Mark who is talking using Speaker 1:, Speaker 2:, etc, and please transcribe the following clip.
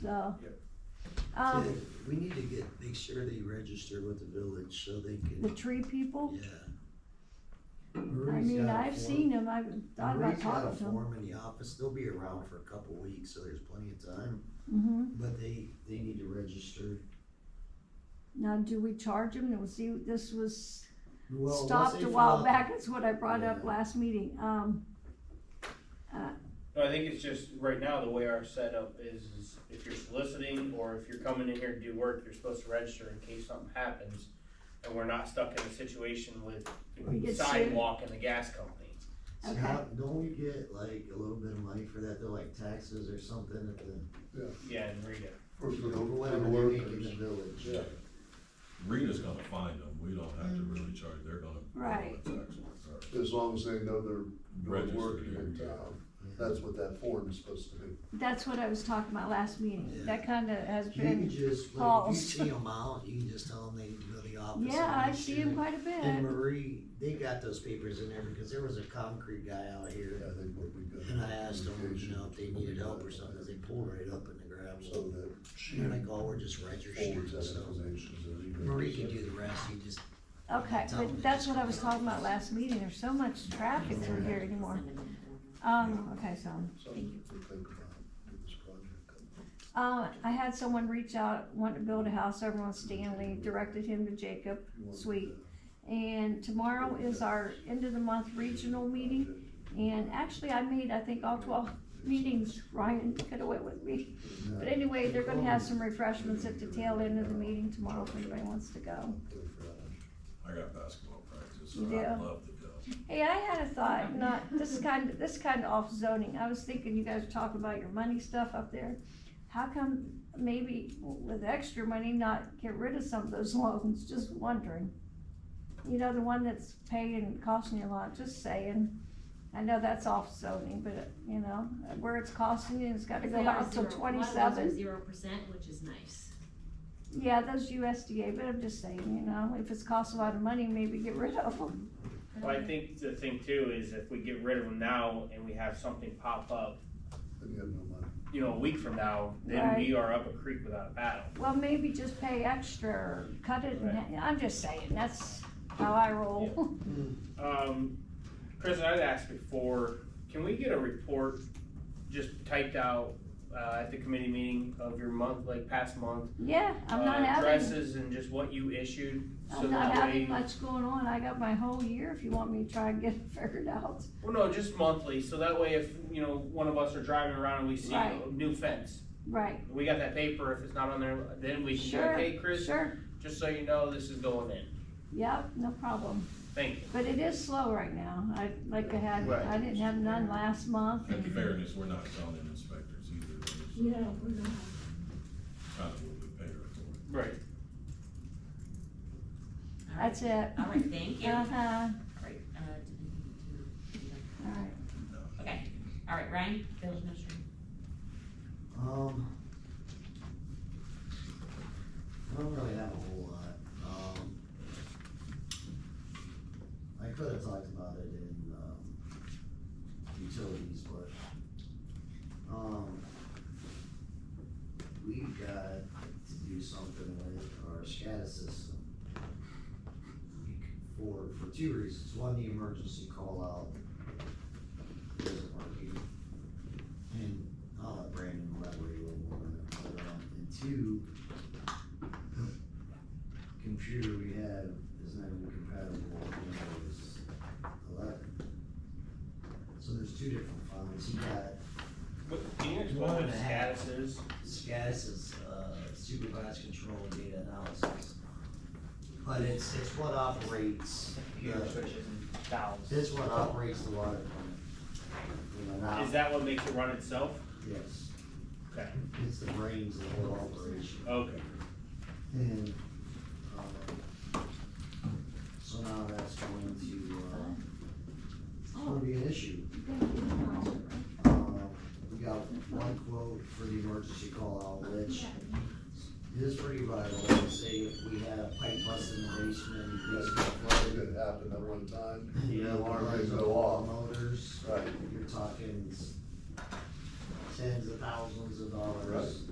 Speaker 1: so.
Speaker 2: Yep.
Speaker 1: Um,
Speaker 3: We need to get, make sure they register with the village so they
Speaker 1: the
Speaker 3: can,
Speaker 1: tree people,
Speaker 3: yeah.
Speaker 1: I mean, I've seen them, I've thought about
Speaker 3: Marie's got a
Speaker 1: talking to them.
Speaker 3: form in the office, they'll be around for a couple weeks, so there's plenty of time,
Speaker 1: hmm
Speaker 3: but they, they need to register.
Speaker 1: now do we charge them, and see, this was
Speaker 3: Well, once
Speaker 1: stopped
Speaker 3: they
Speaker 1: a while
Speaker 3: file-
Speaker 1: back, that's what I brought up
Speaker 3: Yeah.
Speaker 1: last meeting, um,
Speaker 2: No, I think it's just, right now, the way our setup is, is if you're soliciting or if you're coming in here to do work, you're supposed to register in case something happens. And we're not stuck in a situation with
Speaker 1: We
Speaker 2: the
Speaker 1: get
Speaker 2: sidewalk and the gas company.
Speaker 3: So
Speaker 1: Okay.
Speaker 3: how, don't we get like a little bit of money for that, though, like taxes or something at the,
Speaker 2: Yeah, and Rita.
Speaker 4: For the, for
Speaker 3: whatever
Speaker 4: the
Speaker 3: they make in the
Speaker 4: workers.
Speaker 3: village?
Speaker 4: Yeah.
Speaker 5: Rita's gonna find them, we don't have to really charge, they're gonna.
Speaker 1: Right.
Speaker 5: Or
Speaker 4: As long as they know they're doing work
Speaker 5: Registered
Speaker 4: in
Speaker 5: here, yeah.
Speaker 4: town. That's what that form is supposed to be.
Speaker 1: that's what I was talking about last meeting,
Speaker 3: Yeah.
Speaker 1: that kinda has
Speaker 3: You can
Speaker 1: been,
Speaker 3: just, like, if you
Speaker 1: Paused.
Speaker 3: see them out, you can just tell them they need to go to the office. and
Speaker 1: yeah, I
Speaker 3: make
Speaker 1: see
Speaker 3: sure.
Speaker 1: them quite a
Speaker 3: And
Speaker 1: bit,
Speaker 3: Marie, they got those papers in there because there was a concrete guy out
Speaker 4: I
Speaker 3: here
Speaker 4: think would be good.
Speaker 3: and I asked them, you know, if they needed help or something, 'cause they pulled right up in the ground,
Speaker 4: So
Speaker 3: so.
Speaker 4: that she
Speaker 3: And I think all we're just registering
Speaker 4: forwards
Speaker 3: and
Speaker 4: that
Speaker 3: stuff.
Speaker 4: information. to the-
Speaker 3: Marie can do the rest, you just,
Speaker 1: okay, but that's what I was talking about last meeting, there's so much traffic through here anymore. Um, okay, so,
Speaker 4: Something to think about with this project.
Speaker 1: uh, I had someone reach out, wanted to build a house over on Stanley, directed him to Jacob,
Speaker 4: You want to
Speaker 1: Sweet.
Speaker 4: do
Speaker 1: And tomorrow is our end of the month regional meeting. And actually, I made, I think, all twelve meetings. Ryan could have went with me.
Speaker 4: that.
Speaker 1: But anyway, they're gonna have some refreshments at the tail end of the meeting tomorrow if anybody wants to go.
Speaker 4: Good for that.
Speaker 5: I got basketball practice,
Speaker 1: You
Speaker 5: so I'd
Speaker 1: do?
Speaker 5: love to go.
Speaker 1: Hey, I had a thought, not, this is kind of, this is kind of off zoning. I was thinking you guys were talking about your money stuff up there. How come maybe with extra money not get rid of some of those loans? Just wondering. You know, the one that's paying, costing you a lot, just saying. I know that's off zoning, but you know, where it's costing you, it's gotta
Speaker 6: Because
Speaker 1: go
Speaker 6: they are
Speaker 1: out till
Speaker 6: zero, a lot of those are
Speaker 1: twenty-seven.
Speaker 6: zero percent, which is nice.
Speaker 1: Yeah, those USDA, but I'm just saying, you know, if it's cost a lot of money, maybe get rid of them.
Speaker 2: Well, I think the thing too is if we get rid of them now and we have something pop up,
Speaker 4: Then you have no money.
Speaker 2: you know, a week from now, then we are up a creek without a paddle.
Speaker 1: Well, maybe just pay extra, or cut it, in
Speaker 2: Right.
Speaker 1: ha- I'm just saying, that's how I roll.
Speaker 2: Um, Chris, I'd asked before, can we get a report just typed out, uh, at the committee meeting of your month, like past month?
Speaker 1: Yeah, I'm
Speaker 2: uh,
Speaker 1: not having,
Speaker 2: Addresses and just what you issued, so
Speaker 1: I'm not
Speaker 2: that
Speaker 1: having
Speaker 2: way,
Speaker 1: much going on, I got my whole year if you want me to try and get it figured out.
Speaker 2: well, no, just monthly, so that way if, you know, one of us are driving around and we see a
Speaker 1: Right.
Speaker 2: new fence.
Speaker 1: Right,
Speaker 2: We got that paper, if it's not on there, then we can be
Speaker 1: Sure,
Speaker 2: like, hey, Chris,
Speaker 1: sure,
Speaker 2: just so you know, this is going in,
Speaker 1: yep, no problem,
Speaker 2: thank you.
Speaker 1: but it is slow right now, I, like I had,
Speaker 2: Right.
Speaker 1: I didn't have none last month.
Speaker 5: In fairness, we're not zoning inspectors either, we're
Speaker 6: Yeah, we're not.
Speaker 5: just kind of what we pay her for.
Speaker 2: Right.
Speaker 1: That's it.
Speaker 6: All right, thank you. All
Speaker 1: Uh-huh,
Speaker 6: right, uh, do we need to-
Speaker 1: alright.
Speaker 6: Okay, all right, Ryan, village administrator.
Speaker 3: um. I don't really have a whole lot, um. I could have talked about it in, um, utilities, but, um. We got to do something with our SCADA system. For, for two reasons, one, the emergency call out isn't working. And I'll let Brandon elaborate a little more on that later on. And two, the computer we have is not even compatible with Windows eleven. So there's two different files. He got
Speaker 2: What, can you explain
Speaker 3: One
Speaker 2: what
Speaker 3: and
Speaker 2: the
Speaker 3: a half.
Speaker 2: status is?
Speaker 3: SCAS is uh, supervised control data analysis. But it's, it's what operates,
Speaker 2: Computer
Speaker 3: the-
Speaker 2: switches and valves.
Speaker 3: it's what operates the water plant. You know, not-
Speaker 2: Is that what makes it run itself?
Speaker 3: Yes,
Speaker 2: Okay.
Speaker 3: it's the brains of the whole operation.
Speaker 2: Okay.
Speaker 3: And, uh, so now that's going to, uh, it's gonna be an issue. Uh, We got one quote for the emergency call out, which is pretty vital, They say if we have pipe bust in the basement,
Speaker 4: That's
Speaker 3: basement
Speaker 4: probably
Speaker 3: flooded.
Speaker 4: gonna happen at one time.
Speaker 3: The alarm
Speaker 4: Right,
Speaker 3: is
Speaker 4: go
Speaker 3: all
Speaker 4: off.
Speaker 3: motors,
Speaker 4: Right.
Speaker 3: you're talking tens of thousands of dollars.
Speaker 4: Right.